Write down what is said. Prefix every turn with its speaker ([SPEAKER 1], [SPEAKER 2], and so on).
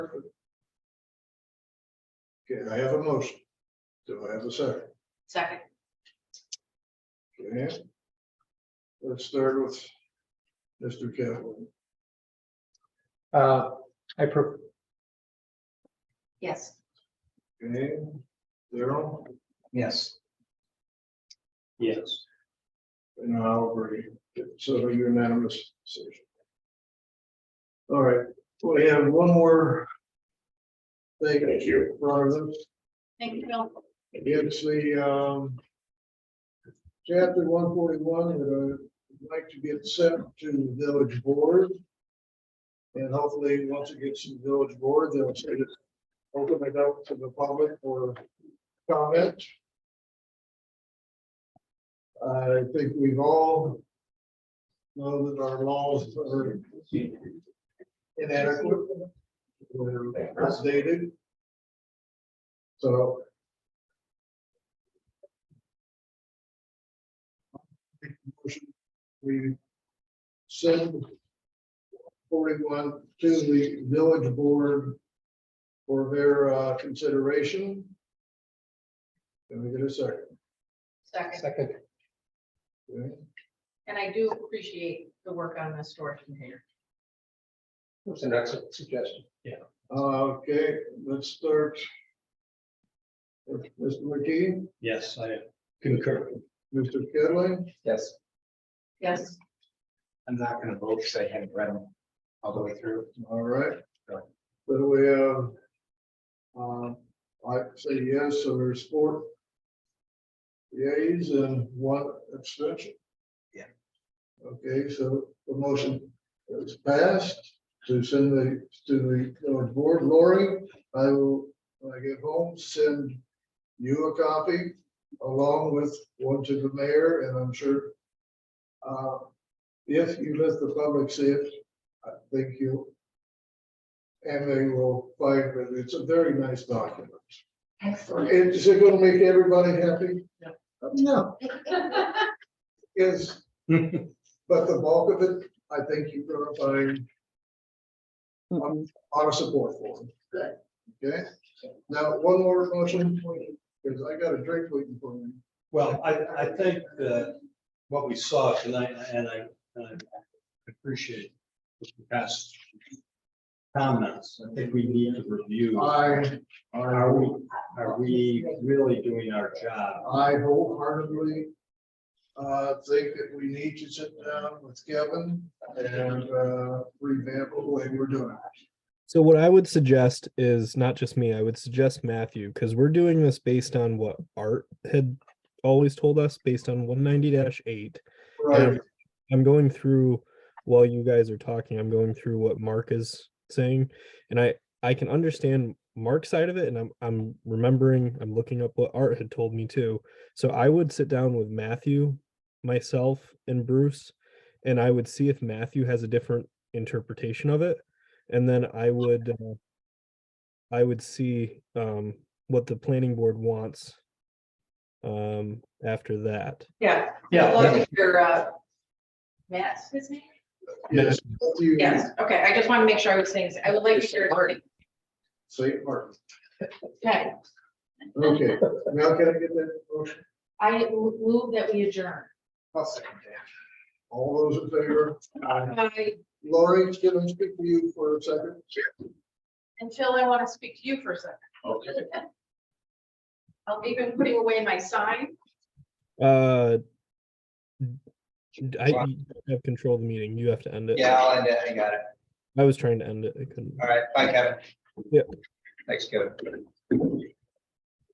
[SPEAKER 1] Okay, I have a motion. Do I have a second?
[SPEAKER 2] Second,
[SPEAKER 1] Okay. Let's start with Mr. Kaplan.
[SPEAKER 3] Uh, I, pro-
[SPEAKER 2] yes,
[SPEAKER 1] Okay, Daryl,
[SPEAKER 3] yes. Yes.
[SPEAKER 1] and I'll agree. So unanimous decision. All right, we have one more thing
[SPEAKER 4] Thank you.
[SPEAKER 1] Rather than,
[SPEAKER 2] thank you, Bill.
[SPEAKER 1] it's the, um, chapter one forty-one that I'd like to get sent to the village board. And hopefully, once it gets to the village board, they'll send it, open it up to the public for comment. I think we've all know that our laws are inadequate. They're outdated. So. We send forty-one to the village board for their uh, consideration. Can we get a second?
[SPEAKER 2] Second,
[SPEAKER 3] Second,
[SPEAKER 1] Okay.
[SPEAKER 2] and I do appreciate the work on the storage container.
[SPEAKER 3] was an excellent suggestion. Yeah.
[SPEAKER 1] Uh, Okay, let's start. with Mr. McKee,
[SPEAKER 3] Yes, I concur.
[SPEAKER 1] Mr. Kelly,
[SPEAKER 5] Yes,
[SPEAKER 2] Yes,
[SPEAKER 5] I'm not gonna vote because I haven't read them all the way through.
[SPEAKER 1] all right. So we have. um, I say yes, so there's four. Yeas and one abstention.
[SPEAKER 5] Yeah.
[SPEAKER 1] Okay, so the motion is passed to send the, to the village board. Lori, I will, when I get home, send you a copy along with one to the mayor and I'm sure. uh, If you let the public see it, I think you and they will find that it's a very nice document.
[SPEAKER 2] excellent.
[SPEAKER 1] And is it gonna make everybody happy?
[SPEAKER 2] No.
[SPEAKER 1] No, yes, but the bulk of it, I think you're gonna find um,
[SPEAKER 6] Mm-mm.
[SPEAKER 1] a lot of support for. Good. Okay, now, one more motion, because I got a drink waiting for me.
[SPEAKER 7] Well, I, I think that what we saw tonight, and I, and I appreciate the past comments, I think we need to review.
[SPEAKER 3] Uh,
[SPEAKER 1] I,
[SPEAKER 7] Are we, are we really doing our job?
[SPEAKER 1] I wholeheartedly uh, think that we need to sit down with Kevin and uh, revamp the way we're doing it.
[SPEAKER 8] So what I would suggest is not just me, I would suggest Matthew, because we're doing this based on what Art had always told us, based on one ninety eight.
[SPEAKER 1] Right,
[SPEAKER 8] Um, I'm going through while you guys are talking, I'm going through what Mark is saying. And I, I can understand Mark's side of it and I'm, I'm remembering, I'm looking up what Art had told me too. So I would sit down with Matthew, myself and Bruce, and I would see if Matthew has a different interpretation of it. And then I would, uh, I would see, um, what the planning board wants. Um, after that.
[SPEAKER 2] Yeah.
[SPEAKER 7] Yeah.
[SPEAKER 2] Look at Your, uh, Matt's his name?
[SPEAKER 1] yes. Matthew
[SPEAKER 2] Yes, okay, I just want to make sure I was saying, I would like to hear it already.
[SPEAKER 1] St. Martin.
[SPEAKER 2] Okay,
[SPEAKER 1] Okay, now can I get that motion?
[SPEAKER 2] I move that we adjourn.
[SPEAKER 1] I'll second that. All those in favor?
[SPEAKER 2] I-
[SPEAKER 1] Lori, can I speak to you for a second?
[SPEAKER 2] Until I want to speak to you for a second.
[SPEAKER 1] Okay.
[SPEAKER 2] I'm even putting away my sign.
[SPEAKER 8] Uh, I
[SPEAKER 5] Wow.
[SPEAKER 8] you don't have control of the meeting. You have to end it.
[SPEAKER 5] Yeah, I'll end it. I got it.
[SPEAKER 8] I was trying to end it. I couldn't.
[SPEAKER 5] All right, bye, Kevin.
[SPEAKER 8] Yeah.
[SPEAKER 5] Thanks, Kevin.